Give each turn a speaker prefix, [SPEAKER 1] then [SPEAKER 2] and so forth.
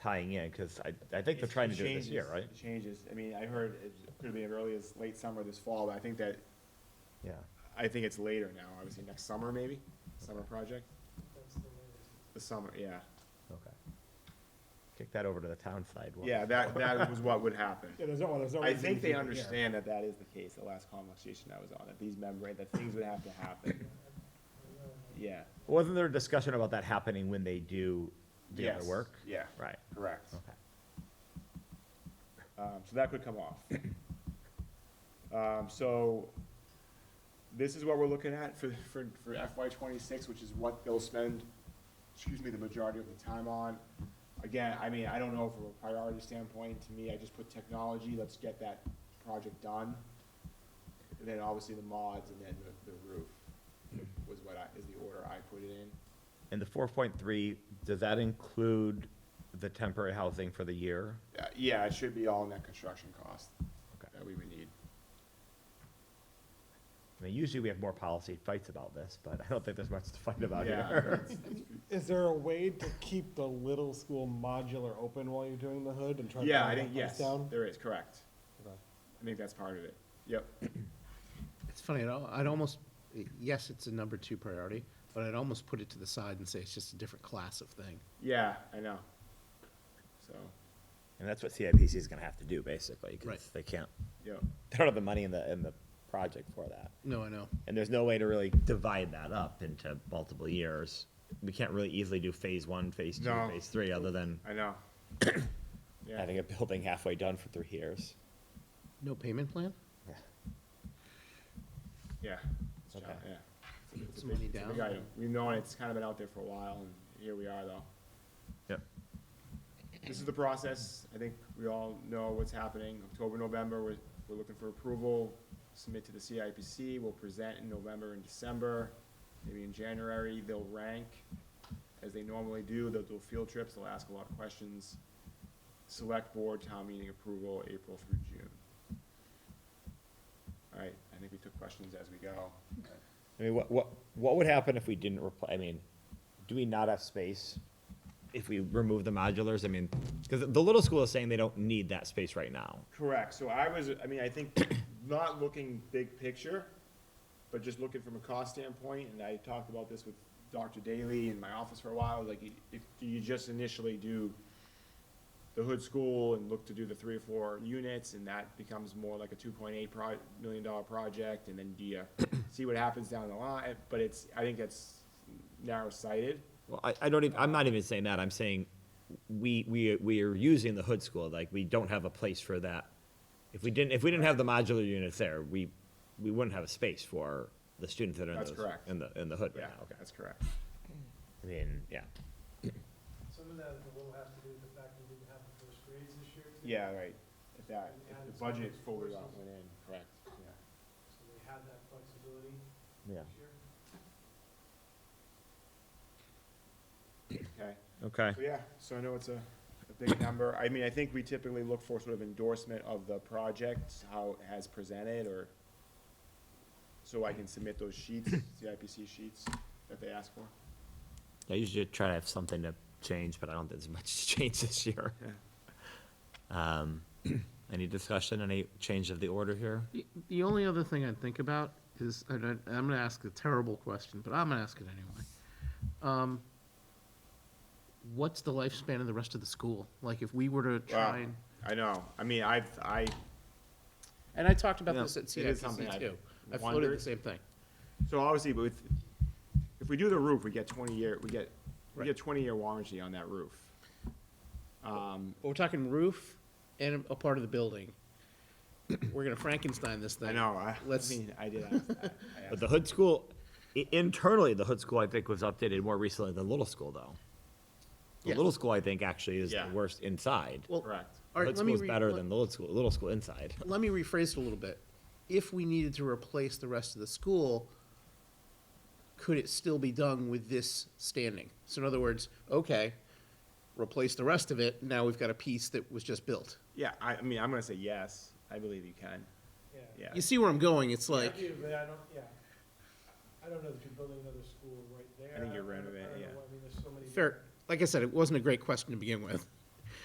[SPEAKER 1] tying in, because I, I think they're trying to do it this year,
[SPEAKER 2] changes-
[SPEAKER 1] right?
[SPEAKER 2] it Changes, I mean, I heard it could be as early as late summer this fall, but I think that,
[SPEAKER 1] Yeah,
[SPEAKER 2] I think it's later now, obviously next summer maybe, summer project, the summer, yeah.
[SPEAKER 1] okay. Kick that over to the town side. we'll-
[SPEAKER 2] Yeah, that, that was what would happen.
[SPEAKER 3] Yeah, there's no, well, there's no.
[SPEAKER 2] I
[SPEAKER 3] reason
[SPEAKER 2] think
[SPEAKER 3] to
[SPEAKER 2] they
[SPEAKER 3] keep it here.
[SPEAKER 2] understand that that is the case, the last conversation I was on, that these membrane, that things would have to happen. Yeah.
[SPEAKER 1] Wasn't there a discussion about that happening when they do the other
[SPEAKER 2] Yes.
[SPEAKER 1] work?
[SPEAKER 2] Yeah,
[SPEAKER 1] Right,
[SPEAKER 2] correct.
[SPEAKER 1] okay.
[SPEAKER 2] Um, so that could come off. Um, so this is what we're looking at for, for, for FY twenty-six, which is what they'll spend, excuse me, the majority of the time on. Again, I mean, I don't know from a priority standpoint, to me, I just put technology, let's get that project done. And then obviously the mods and then the, the roof was what I, is the order I put it in.
[SPEAKER 1] And the four point three, does that include the temporary housing for the year?
[SPEAKER 2] Uh, yeah, it should be all net construction cost
[SPEAKER 1] Okay.
[SPEAKER 2] that we would need.
[SPEAKER 1] I mean, usually we have more policy fights about this, but I don't think there's much to fight about
[SPEAKER 2] Yeah,
[SPEAKER 1] here.
[SPEAKER 2] that's- that's-
[SPEAKER 3] Is there a way to keep the little school modular open while you're doing the hood and try to?
[SPEAKER 2] Yeah,
[SPEAKER 3] bring
[SPEAKER 2] I
[SPEAKER 3] that
[SPEAKER 2] think, yes,
[SPEAKER 3] price Down?
[SPEAKER 2] there is, correct.
[SPEAKER 3] Okay.
[SPEAKER 2] I think that's part of it. Yep.
[SPEAKER 4] It's funny, I'd al- I'd almost, yes, it's a number two priority, but I'd almost put it to the side and say it's just a different class of thing.
[SPEAKER 2] Yeah, I know. So,
[SPEAKER 1] And that's what CIPC is gonna have to do, basically,
[SPEAKER 4] Right.
[SPEAKER 1] because they can't,
[SPEAKER 2] yep.
[SPEAKER 1] they don't have the money in the, in the project for that.
[SPEAKER 4] No, I know.
[SPEAKER 1] And there's no way to really divide that up into multiple years. We can't really easily do phase one, phase two,
[SPEAKER 2] No.
[SPEAKER 1] phase three, other than
[SPEAKER 2] I know. Yeah.
[SPEAKER 1] having a building halfway done for three years.
[SPEAKER 4] No payment plan?
[SPEAKER 1] Yeah.
[SPEAKER 2] Yeah. It's
[SPEAKER 1] Okay.
[SPEAKER 2] John- Yeah. It's a big- it's a
[SPEAKER 4] Some money
[SPEAKER 2] big- it's a big
[SPEAKER 4] down.
[SPEAKER 2] item. We've known it's kind of been out there for a while and here we are though.
[SPEAKER 1] Yep.
[SPEAKER 2] This is the process. I think we all know what's happening. October, November, we're, we're looking for approval. Submit to the CIPC. We'll present in November and December. Maybe in January, they'll rank as they normally do. They'll do field trips. They'll ask a lot of questions. Select board, town meeting approval, April through June. All right, I think we took questions as we go.
[SPEAKER 1] I mean, what, what, what would happen if we didn't repl- I mean, do we not have space if we remove the modulars? I mean, because the little school is saying they don't need that space right now.
[SPEAKER 2] Correct, so I was, I mean, I think, not looking big picture, but just looking from a cost standpoint, and I talked about this with Dr. Daly in my office for a while, like, if you just initially do the hood school and look to do the three or four units, and that becomes more like a two point eight pro, million dollar project, and then do you see what happens down the line, but it's, I think that's narrow-sighted.
[SPEAKER 1] Well, I, I don't even, I'm not even saying that. I'm saying we, we, we are using the hood school, like, we don't have a place for that. If we didn't, if we didn't have the modular units there, we, we wouldn't have a space for the students that are in
[SPEAKER 2] That's
[SPEAKER 1] those,
[SPEAKER 2] correct.
[SPEAKER 1] in the, in the hood right
[SPEAKER 2] Yeah,
[SPEAKER 1] now, okay?
[SPEAKER 2] that's correct.
[SPEAKER 1] I mean, yeah.
[SPEAKER 5] Some of that will have to do with the fact that we didn't have the first grades this year. too.
[SPEAKER 2] Yeah, right, if that, if the budget fully went in, correct, yeah.
[SPEAKER 5] So they had that flexibility
[SPEAKER 1] Yeah.
[SPEAKER 5] this year.
[SPEAKER 2] Okay,
[SPEAKER 1] Okay.
[SPEAKER 2] so yeah, so I know it's a, a big number. I mean, I think we typically look for sort of endorsement of the project, how it has presented, or so I can submit those sheets, CIPC sheets that they ask for.
[SPEAKER 1] I usually try to have something to change, but I don't think there's much to change this year. Um, any discussion, any change of the order here?
[SPEAKER 4] The- The only other thing I'd think about is, and I- I'm gonna ask a terrible question, but I'm gonna ask it anyway. Um, What's the lifespan of the rest of the school? Like, if we were to try and,
[SPEAKER 2] I know, I mean, I've, I,
[SPEAKER 4] and I talked about
[SPEAKER 2] Yeah,
[SPEAKER 4] this at
[SPEAKER 2] it is something
[SPEAKER 4] CIPC too.
[SPEAKER 2] I've
[SPEAKER 4] I floated the
[SPEAKER 2] wondered.
[SPEAKER 4] same thing.
[SPEAKER 2] so obviously, but with, if we do the roof, we get twenty year, we get, we
[SPEAKER 4] Right.
[SPEAKER 2] get twenty year warranty on that roof. Um,
[SPEAKER 4] But We're talking roof and a part of the building. We're gonna Frankenstein this thing.
[SPEAKER 2] I know, I, I
[SPEAKER 4] Let's-
[SPEAKER 2] mean, I did ask that. I
[SPEAKER 1] But
[SPEAKER 2] asked-
[SPEAKER 1] the hood school, i- internally, the hood school, I think, was updated more recently than little school, though. The
[SPEAKER 4] Yeah.
[SPEAKER 1] little school, I think, actually is the
[SPEAKER 2] Yeah.
[SPEAKER 1] worst inside.
[SPEAKER 4] Well,
[SPEAKER 2] Correct.
[SPEAKER 4] all right,
[SPEAKER 1] Hood
[SPEAKER 4] let me
[SPEAKER 1] school's
[SPEAKER 4] re-
[SPEAKER 1] better
[SPEAKER 4] let-
[SPEAKER 1] than the little school, little school inside.
[SPEAKER 4] Let me rephrase it a little bit. If we needed to replace the rest of the school, could it still be done with this standing? So in other words, okay, replace the rest of it, now we've got a piece that was just built.
[SPEAKER 2] Yeah, I, I mean, I'm gonna say yes, I believe you can,
[SPEAKER 5] Yeah.
[SPEAKER 2] yeah.
[SPEAKER 4] You see where I'm going, it's
[SPEAKER 5] I
[SPEAKER 4] like,
[SPEAKER 5] do, but I don't, yeah. I don't know that you're building another school right there.
[SPEAKER 2] think you're
[SPEAKER 5] I don't-
[SPEAKER 2] renovating,
[SPEAKER 5] I don't
[SPEAKER 2] yeah.
[SPEAKER 5] know, I mean, there's so many.
[SPEAKER 4] fair, like I said, it wasn't a great question to begin with.